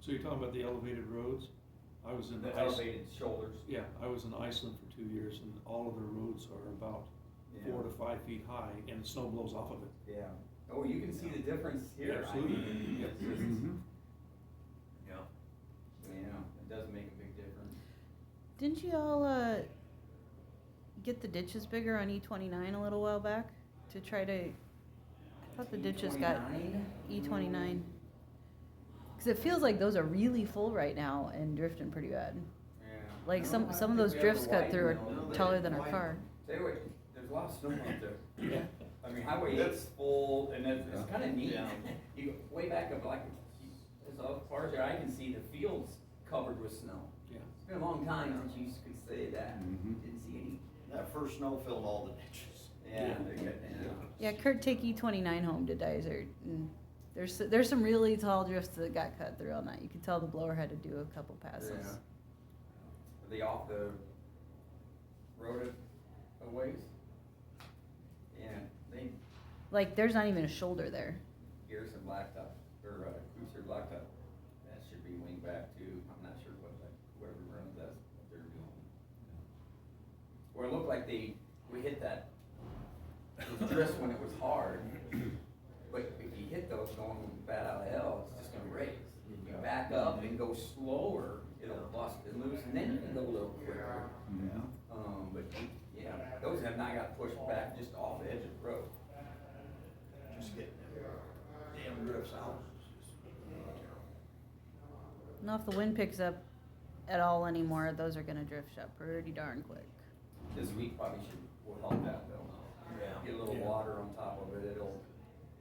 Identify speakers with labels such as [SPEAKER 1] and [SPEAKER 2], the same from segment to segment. [SPEAKER 1] So you're talking about the elevated roads? I was in
[SPEAKER 2] The
[SPEAKER 1] Iceland,
[SPEAKER 2] elevated shoulders.
[SPEAKER 1] yeah, I was in Iceland for two years and all of their roads are about
[SPEAKER 2] Yeah.
[SPEAKER 1] four to five feet high and the snow blows off of it.
[SPEAKER 2] Yeah. Oh, you can see the difference here. I
[SPEAKER 1] Absolutely.
[SPEAKER 2] mean,
[SPEAKER 1] Yep.
[SPEAKER 2] it's just-
[SPEAKER 1] Mhm.
[SPEAKER 2] Yeah. Yeah, it does make a big difference.
[SPEAKER 3] Didn't you all uh, get the ditches bigger on E29 a little while back to try to? I thought the ditches got E29 because it feels like those are really full right now and drifting pretty bad.
[SPEAKER 2] Yeah.
[SPEAKER 3] Like
[SPEAKER 2] No, I
[SPEAKER 3] some
[SPEAKER 2] don't
[SPEAKER 3] some
[SPEAKER 2] think
[SPEAKER 3] of those
[SPEAKER 2] we have
[SPEAKER 3] drifts
[SPEAKER 2] to
[SPEAKER 3] cut through
[SPEAKER 2] widen all
[SPEAKER 3] are
[SPEAKER 2] the-
[SPEAKER 3] taller than our
[SPEAKER 2] widen.
[SPEAKER 3] car.
[SPEAKER 2] Tell you what, there's a lot of snow out there.
[SPEAKER 1] Yeah.
[SPEAKER 2] I mean, Highway eight's full, and it's, it's kinda neat.
[SPEAKER 4] Yeah.
[SPEAKER 2] You, go way back up, like, you- as far as I can see, the field's covered with snow.
[SPEAKER 1] Yeah.
[SPEAKER 2] It's been a long time since you could say that.
[SPEAKER 1] Mm-hmm.
[SPEAKER 5] Mhm.
[SPEAKER 2] Didn't see any.
[SPEAKER 4] That first snow filled all the ditches.
[SPEAKER 2] Yeah,
[SPEAKER 1] Yeah.
[SPEAKER 2] they got, yeah.
[SPEAKER 3] Yeah, Kurt, take E29 home to Dyser. Mm. There's there's some really tall drifts that got cut through all night. You could tell the blower had to do a couple passes.
[SPEAKER 2] Yeah. Are they off the road a- a ways? Yeah, they,
[SPEAKER 3] Like there's not even a shoulder there.
[SPEAKER 2] Garrison Blacktop, or, uh, Cruiser Blacktop, that should be winged back too, I'm not sure what, that whoever runs that's what they're doing. Or it looked like they, we hit that, it was just when it was hard, but if you hit those going bad out of hell, it's just gonna raise. If you back up and go slower, it'll bust and loose, and then you can go a little quicker.
[SPEAKER 5] Yeah.
[SPEAKER 2] Um, but, yeah, those have not got pushed back just off the edge of the road.
[SPEAKER 4] Just getting damn drifts out.
[SPEAKER 3] Now, if the wind picks up at all anymore, those are gonna drift shut pretty darn quick.
[SPEAKER 2] This week probably should, will help that though. Get a little
[SPEAKER 1] Yeah.
[SPEAKER 2] water on top of it, it'll,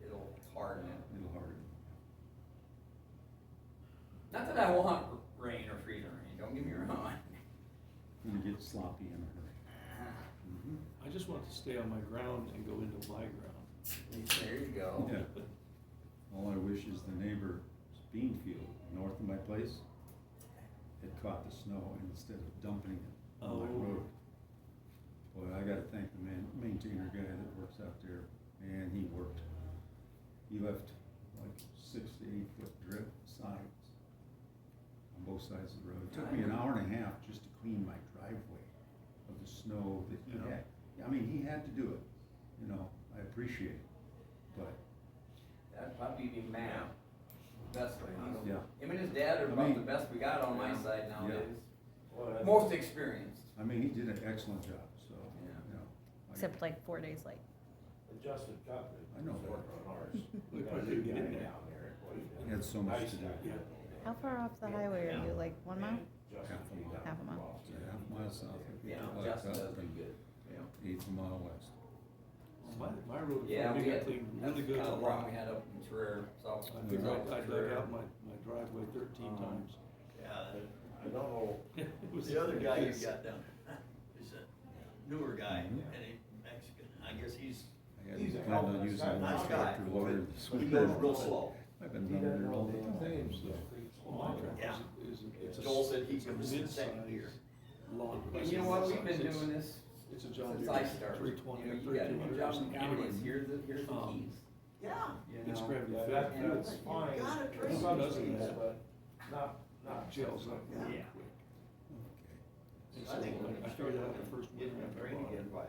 [SPEAKER 2] it'll harden it.
[SPEAKER 5] Little hard.
[SPEAKER 2] Not that I want r- rain or freezing rain, don't get me wrong.
[SPEAKER 5] When you get sloppy in a hurry. Mhm.
[SPEAKER 1] I just want to stay on my ground and go into my ground.
[SPEAKER 2] There you go.
[SPEAKER 5] Yeah. All I wish is the neighbor's bean field north of my place had caught the snow and instead of dumping it on my
[SPEAKER 1] Oh.
[SPEAKER 5] road. Boy, I gotta thank the man, maintainer guy that works out there, man, he worked. He left like six to eight foot drip sides on both sides of the road. It took me an hour and a half just to clean my driveway of the snow that he
[SPEAKER 1] Yeah.
[SPEAKER 5] had. I mean, he had to do it, you know, I appreciate it, but
[SPEAKER 2] That'd probably be Matt. Best way.
[SPEAKER 5] Yeah.
[SPEAKER 2] Him and his dad are
[SPEAKER 5] I
[SPEAKER 2] about
[SPEAKER 5] mean-
[SPEAKER 2] the best we got on my
[SPEAKER 4] Yeah.
[SPEAKER 2] side
[SPEAKER 5] Yeah.
[SPEAKER 2] nowadays. Most experienced.
[SPEAKER 5] I mean, he did an excellent job, so,
[SPEAKER 2] Yeah.
[SPEAKER 5] you know. I-
[SPEAKER 3] Except like four days late.
[SPEAKER 6] Justin Tucker.
[SPEAKER 5] I know that.
[SPEAKER 6] Worked on ours.
[SPEAKER 1] We
[SPEAKER 6] We got a
[SPEAKER 1] probably
[SPEAKER 6] new
[SPEAKER 1] didn't
[SPEAKER 6] guy
[SPEAKER 1] get it.
[SPEAKER 6] down there.
[SPEAKER 5] He had so much to do.
[SPEAKER 1] Yeah.
[SPEAKER 3] How far off the highway are you? Like one mile?
[SPEAKER 5] Half a mile.
[SPEAKER 3] Half a mile.
[SPEAKER 5] Yeah, half a mile south. of
[SPEAKER 2] Yeah,
[SPEAKER 5] Blacktop
[SPEAKER 2] Justin does do
[SPEAKER 5] and
[SPEAKER 2] good. Yeah.
[SPEAKER 5] Eighth a mile west.
[SPEAKER 1] My, my road,
[SPEAKER 2] Yeah,
[SPEAKER 1] we
[SPEAKER 2] we
[SPEAKER 1] got
[SPEAKER 2] had,
[SPEAKER 1] cleaned
[SPEAKER 2] that's
[SPEAKER 1] really
[SPEAKER 2] the
[SPEAKER 1] good.
[SPEAKER 2] kind
[SPEAKER 1] a
[SPEAKER 2] of rock
[SPEAKER 1] lot.
[SPEAKER 2] we had up in Terrell, south.
[SPEAKER 1] I dug
[SPEAKER 2] south
[SPEAKER 1] out- I dug
[SPEAKER 2] Terrell.
[SPEAKER 1] out my, my driveway thirteen
[SPEAKER 2] Um,
[SPEAKER 1] times.
[SPEAKER 4] Yeah,
[SPEAKER 6] I don't know,
[SPEAKER 1] It was-
[SPEAKER 4] the other guy you
[SPEAKER 1] it's-
[SPEAKER 4] got down there is a newer guy, and
[SPEAKER 1] Mm-hmm.
[SPEAKER 4] a Mexican, I guess he's,
[SPEAKER 5] I
[SPEAKER 6] He's a
[SPEAKER 5] hadn't planned
[SPEAKER 6] hell of
[SPEAKER 5] on
[SPEAKER 6] a
[SPEAKER 5] using
[SPEAKER 6] guy.
[SPEAKER 5] my
[SPEAKER 4] Nice guy.
[SPEAKER 5] tractor loader this
[SPEAKER 4] he
[SPEAKER 5] week.
[SPEAKER 4] goes real slow.
[SPEAKER 5] I've
[SPEAKER 6] he
[SPEAKER 5] been down
[SPEAKER 6] doesn't
[SPEAKER 5] there all
[SPEAKER 6] know
[SPEAKER 5] the
[SPEAKER 6] the
[SPEAKER 5] time,
[SPEAKER 6] things.
[SPEAKER 5] so.
[SPEAKER 1] Well, my tractor is,
[SPEAKER 4] Yeah.
[SPEAKER 1] is, it's a.
[SPEAKER 4] Joel said he
[SPEAKER 1] it's a
[SPEAKER 4] comes in second
[SPEAKER 1] mid-size
[SPEAKER 4] here.
[SPEAKER 1] Long.
[SPEAKER 2] And you know what, we've been
[SPEAKER 1] It's-
[SPEAKER 2] doing this
[SPEAKER 1] It's a John
[SPEAKER 2] since I
[SPEAKER 1] Deere
[SPEAKER 2] started.
[SPEAKER 1] three twenty,
[SPEAKER 2] You know, you got a
[SPEAKER 1] thirteen
[SPEAKER 2] new
[SPEAKER 1] hundred.
[SPEAKER 2] job in county, it's here's the, here's the
[SPEAKER 1] Um,
[SPEAKER 2] keys.
[SPEAKER 4] yeah,
[SPEAKER 2] you
[SPEAKER 1] It's
[SPEAKER 2] know?
[SPEAKER 1] gravity
[SPEAKER 6] Yeah,
[SPEAKER 1] fed.
[SPEAKER 6] that- that's
[SPEAKER 4] You
[SPEAKER 6] fine,
[SPEAKER 4] gotta
[SPEAKER 6] in
[SPEAKER 4] train
[SPEAKER 6] some
[SPEAKER 1] those
[SPEAKER 6] states,
[SPEAKER 1] guys.
[SPEAKER 6] but not, not.
[SPEAKER 1] Jails up really
[SPEAKER 4] Yeah.
[SPEAKER 1] quick.
[SPEAKER 5] Okay.
[SPEAKER 1] And
[SPEAKER 4] I
[SPEAKER 1] so
[SPEAKER 4] think we're
[SPEAKER 1] I
[SPEAKER 4] gonna
[SPEAKER 1] figured that
[SPEAKER 4] start
[SPEAKER 1] out the first winter
[SPEAKER 4] getting
[SPEAKER 1] after I
[SPEAKER 4] trained
[SPEAKER 1] bought it.
[SPEAKER 4] again by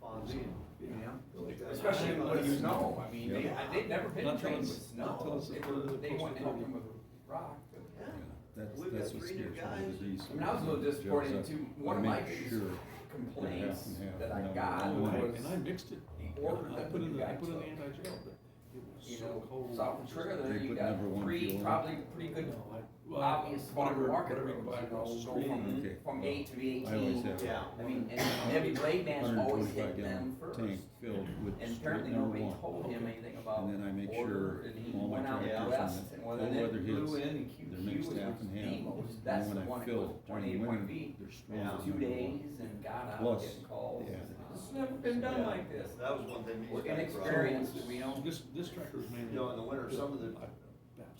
[SPEAKER 4] Fonzie.
[SPEAKER 1] Yeah.
[SPEAKER 2] Especially when you know, I mean, they,
[SPEAKER 4] Yeah.
[SPEAKER 2] they've never been
[SPEAKER 1] Not
[SPEAKER 2] trained
[SPEAKER 1] till
[SPEAKER 2] with
[SPEAKER 1] it's- not till
[SPEAKER 2] snow,
[SPEAKER 1] it's
[SPEAKER 2] they
[SPEAKER 1] the
[SPEAKER 2] were,
[SPEAKER 1] further
[SPEAKER 2] they
[SPEAKER 1] closer
[SPEAKER 2] wanted to
[SPEAKER 1] to
[SPEAKER 2] help
[SPEAKER 1] the-
[SPEAKER 2] them with rock. but-
[SPEAKER 4] Yeah.
[SPEAKER 5] Yeah, That's,
[SPEAKER 4] We've
[SPEAKER 5] that's
[SPEAKER 4] got
[SPEAKER 5] what
[SPEAKER 4] three new
[SPEAKER 5] scares me
[SPEAKER 4] guys.
[SPEAKER 5] with these.
[SPEAKER 2] I mean, I was a little
[SPEAKER 5] jobs
[SPEAKER 2] disappointed in
[SPEAKER 5] up.
[SPEAKER 2] two-
[SPEAKER 5] I
[SPEAKER 2] one of my
[SPEAKER 5] make
[SPEAKER 2] biggest
[SPEAKER 5] sure
[SPEAKER 2] Complaints
[SPEAKER 5] and half,
[SPEAKER 2] that I
[SPEAKER 5] no,
[SPEAKER 2] got
[SPEAKER 5] no,
[SPEAKER 1] Oh, and I-
[SPEAKER 2] was
[SPEAKER 1] And I mixed it.
[SPEAKER 2] the order
[SPEAKER 1] I
[SPEAKER 2] that
[SPEAKER 1] put in
[SPEAKER 2] you
[SPEAKER 1] the, I
[SPEAKER 2] guys
[SPEAKER 1] put in the
[SPEAKER 2] took.
[SPEAKER 1] anti-gel, but it was
[SPEAKER 2] You
[SPEAKER 1] so
[SPEAKER 2] know,
[SPEAKER 1] cold.
[SPEAKER 2] south of Trigger, there
[SPEAKER 5] They
[SPEAKER 2] you
[SPEAKER 5] put
[SPEAKER 2] got
[SPEAKER 5] number one
[SPEAKER 2] three,
[SPEAKER 5] fuel.
[SPEAKER 2] probably pretty
[SPEAKER 1] You
[SPEAKER 2] good
[SPEAKER 1] know, I- well,
[SPEAKER 2] obvious farmer
[SPEAKER 1] whatever-
[SPEAKER 2] market
[SPEAKER 1] whatever you
[SPEAKER 2] roads,
[SPEAKER 1] buy
[SPEAKER 2] you
[SPEAKER 1] across
[SPEAKER 2] know,
[SPEAKER 1] the
[SPEAKER 2] go
[SPEAKER 1] street.
[SPEAKER 2] from,
[SPEAKER 5] Okay.
[SPEAKER 2] from eight to
[SPEAKER 5] I always
[SPEAKER 2] eighteen.
[SPEAKER 5] have.
[SPEAKER 4] Yeah.
[SPEAKER 2] I mean, and heavy blade man's always
[SPEAKER 5] 125
[SPEAKER 2] hit them
[SPEAKER 5] gallon
[SPEAKER 2] first.
[SPEAKER 5] Tank filled with
[SPEAKER 2] And
[SPEAKER 5] straight
[SPEAKER 2] apparently
[SPEAKER 5] number
[SPEAKER 2] nobody
[SPEAKER 5] one.
[SPEAKER 2] told him anything about
[SPEAKER 5] And then I make
[SPEAKER 2] order,
[SPEAKER 5] sure
[SPEAKER 2] and he
[SPEAKER 5] all my
[SPEAKER 2] went out
[SPEAKER 4] tractors
[SPEAKER 2] west,
[SPEAKER 5] and
[SPEAKER 2] and
[SPEAKER 5] the
[SPEAKER 2] whether
[SPEAKER 5] cold
[SPEAKER 2] it
[SPEAKER 5] weather
[SPEAKER 2] blew in,
[SPEAKER 5] hits,
[SPEAKER 2] and
[SPEAKER 5] They're
[SPEAKER 2] QQ was
[SPEAKER 5] mixed
[SPEAKER 2] the
[SPEAKER 5] half and half.
[SPEAKER 2] most, that's
[SPEAKER 5] And
[SPEAKER 2] the
[SPEAKER 5] when I
[SPEAKER 2] one that was
[SPEAKER 5] fill, when you
[SPEAKER 2] twenty-eight point
[SPEAKER 5] win,
[SPEAKER 2] B.
[SPEAKER 5] they're
[SPEAKER 4] Yeah.
[SPEAKER 5] strong.
[SPEAKER 2] Two days and got out,
[SPEAKER 5] Plus,
[SPEAKER 2] getting calls,
[SPEAKER 5] yeah.
[SPEAKER 2] it's never been done
[SPEAKER 4] Yeah.
[SPEAKER 2] like this.
[SPEAKER 4] That was one thing these
[SPEAKER 2] We're
[SPEAKER 4] guys brought.
[SPEAKER 2] inexperienced, we don't,
[SPEAKER 1] This, this tractor was mainly.
[SPEAKER 4] You know, in the winter, some of the,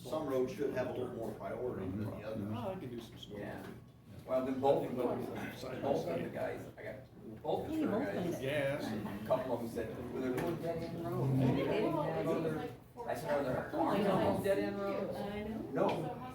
[SPEAKER 4] some roads should have a little more priority than the others.
[SPEAKER 1] Well, I can do some snow.
[SPEAKER 2] Yeah. well, then both of those, both of the guys, I got, both of the guys,
[SPEAKER 1] Gas and.
[SPEAKER 2] a couple of them said, well, they're going dead end road. They didn't have other- I said, are there farms on those dead end roads?
[SPEAKER 7] I know.
[SPEAKER 2] No,